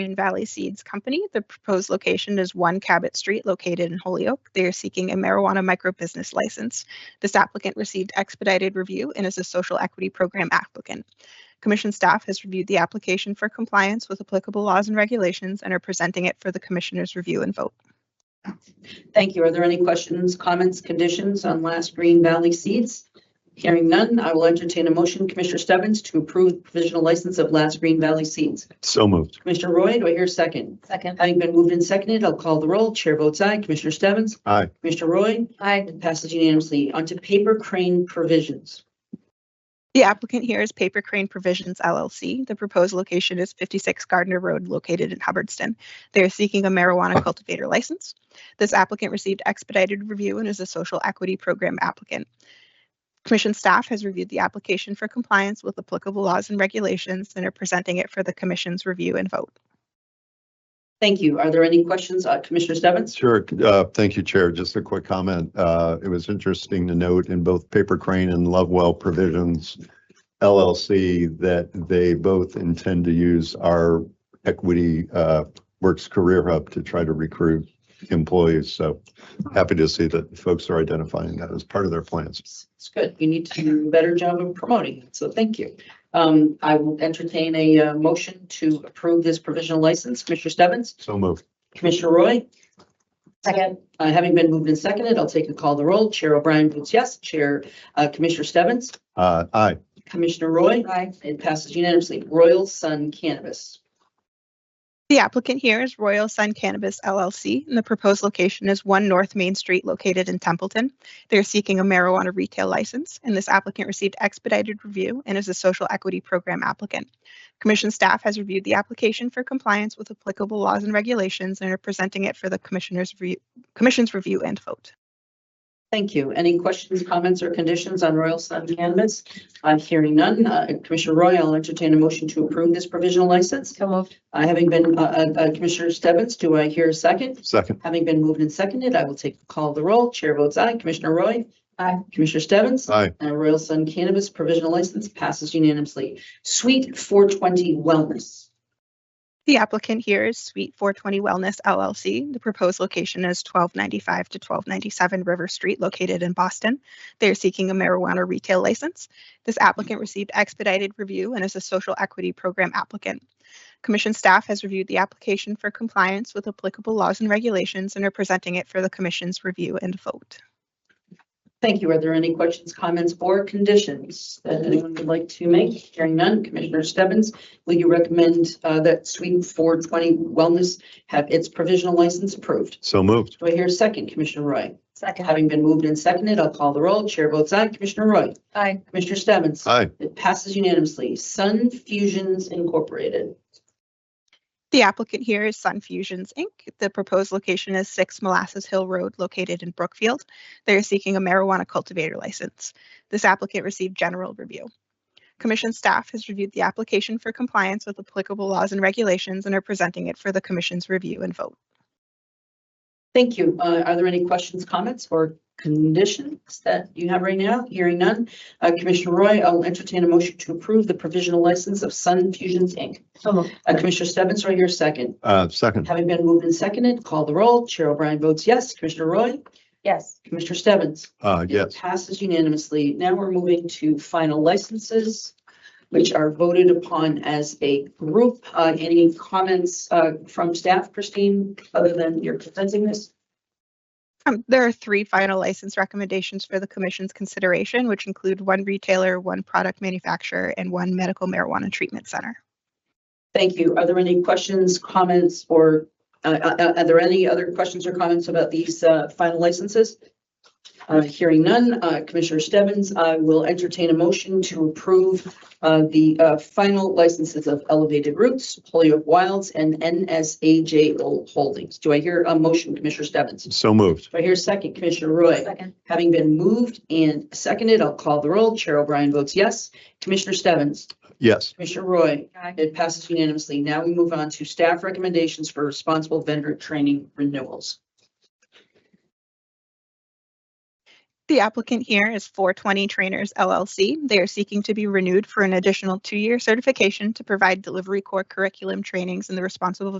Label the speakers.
Speaker 1: Green Valley Seeds Company. The proposed location is One Cabot Street, located in Holyoke. They are seeking a marijuana microbusiness license. This applicant received expedited review and is a social equity program applicant. Commission staff has reviewed the application for compliance with applicable laws and regulations and are presenting it for the commissioners' review and vote.
Speaker 2: Thank you. Are there any questions, comments, conditions on last Green Valley Seeds? Hearing none, I will entertain a motion, Commissioner Stebbins, to approve the provisional license of last Green Valley Seeds.
Speaker 3: So moved.
Speaker 2: Commissioner Roy, do I hear a second?
Speaker 4: Second.
Speaker 2: Having been moved and seconded, I'll call the roll. Chair votes aye. Commissioner Stebbins?
Speaker 3: Aye.
Speaker 2: Commissioner Roy?
Speaker 4: Aye.
Speaker 2: It passes unanimously. Onto paper crane provisions.
Speaker 1: The applicant here is Paper Crane Provisions LLC. The proposed location is 56 Gardner Road, located in Hubbardston. They are seeking a marijuana cultivator license. This applicant received expedited review and is a social equity program applicant. Commission staff has reviewed the application for compliance with applicable laws and regulations and are presenting it for the commission's review and vote.
Speaker 2: Thank you. Are there any questions, uh, Commissioner Stebbins?
Speaker 3: Sure. Uh, Thank you, Chair. Just a quick comment. Uh, It was interesting to note in both Paper Crane and Lovewell Provisions LLC that they both intend to use our equity uh, works career hub to try to recruit employees. So happy to see that folks are identifying that as part of their plans.
Speaker 2: It's good. You need to do a better job of promoting it, so thank you. Um, I will entertain a, uh, motion to approve this provisional license. Commissioner Stebbins?
Speaker 3: So moved.
Speaker 2: Commissioner Roy?
Speaker 4: Second.
Speaker 2: Uh, having been moved and seconded, I'll take a call the roll. Chair O'Brien votes yes. Chair, uh, Commissioner Stebbins?
Speaker 3: Uh, Aye.
Speaker 2: Commissioner Roy?
Speaker 4: Aye.
Speaker 2: It passes unanimously. Royal Sun Cannabis.
Speaker 1: The applicant here is Royal Sun Cannabis LLC, and the proposed location is 1 North Main Street located in Templeton. They're seeking a marijuana retail license, and this applicant received expedited review and is a social equity program applicant. Commission staff has reviewed the application for compliance with applicable laws and regulations and are presenting it for the commissioners' review, commission's review and vote.
Speaker 2: Thank you. Any questions, comments, or conditions on Royal Sun Cannabis? I'm hearing none. Uh, Commissioner Roy, I'll entertain a motion to approve this provisional license.
Speaker 4: So moved.
Speaker 2: Uh, Having been, uh, uh, uh, Commissioner Stebbins, do I hear a second?
Speaker 3: Second.
Speaker 2: Having been moved and seconded, I will take the call of the roll. Chair votes aye. Commissioner Roy?
Speaker 4: Aye.
Speaker 2: Commissioner Stebbins?
Speaker 3: Aye.
Speaker 2: And Royal Sun Cannabis provisional license passes unanimously. Suite 420 Wellness.
Speaker 1: The applicant here is Suite 420 Wellness LLC. The proposed location is 1295 to 1297 River Street, located in Boston. They are seeking a marijuana retail license. This applicant received expedited review and is a social equity program applicant. Commission staff has reviewed the application for compliance with applicable laws and regulations and are presenting it for the commission's review and vote.
Speaker 2: Thank you. Are there any questions, comments, or conditions that anyone would like to make? Hearing none, Commissioner Stebbins, will you recommend uh, that Suite 420 Wellness have its provisional license approved?
Speaker 3: So moved.
Speaker 2: Do I hear a second, Commissioner Roy?
Speaker 4: Second.
Speaker 2: Having been moved and seconded, I'll call the roll. Chair votes aye. Commissioner Roy?
Speaker 4: Aye.
Speaker 2: Commissioner Stebbins?
Speaker 3: Aye.
Speaker 2: It passes unanimously. Sun Fusions Incorporated.
Speaker 1: The applicant here is Sun Fusions Inc. The proposed location is 6 Molasses Hill Road, located in Brookfield. They are seeking a marijuana cultivator license. This applicant received general review. Commission staff has reviewed the application for compliance with applicable laws and regulations and are presenting it for the commission's review and vote.
Speaker 2: Thank you. Uh, Are there any questions, comments, or conditions that you have right now? Hearing none. Uh, Commissioner Roy, I'll entertain a motion to approve the provisional license of Sun Fusions, Inc.
Speaker 4: So moved.
Speaker 2: Uh, Commissioner Stebbins, right here, second.
Speaker 3: Uh, Second.
Speaker 2: Having been moved and seconded, call the roll. Chair O'Brien votes yes. Commissioner Roy?
Speaker 4: Yes.
Speaker 2: Commissioner Stebbins?
Speaker 3: Uh, Yes.
Speaker 2: Passes unanimously. Now we're moving to final licenses, which are voted upon as a group. Uh, Any comments uh, from staff, Christine, other than you're presenting this?
Speaker 1: Um, There are three final license recommendations for the commission's consideration, which include one retailer, one product manufacturer, and one medical marijuana treatment center.
Speaker 2: Thank you. Are there any questions, comments, or uh, uh, uh, are there any other questions or comments about these uh, final licenses? Uh, Hearing none, uh, Commissioner Stebbins, I will entertain a motion to approve uh, the uh, final licenses of Elevated Roots, Holyoke Wilds, and NSAJ Holdings. Do I hear a motion, Commissioner Stebbins? Do
Speaker 3: So moved.
Speaker 2: I hear a second, Commissioner Roy?
Speaker 4: Second.
Speaker 2: Having been moved and seconded, I'll call the roll. Chair O'Brien votes yes. Commissioner Stebbins?
Speaker 3: Yes.
Speaker 2: Commissioner Roy?
Speaker 4: Aye.
Speaker 2: It passes unanimously. Now we move on to staff recommendations for responsible vendor training renewals.
Speaker 1: The applicant here is 420 Trainers LLC. They are seeking to be renewed for an additional two-year certification to provide delivery core curriculum trainings in the responsible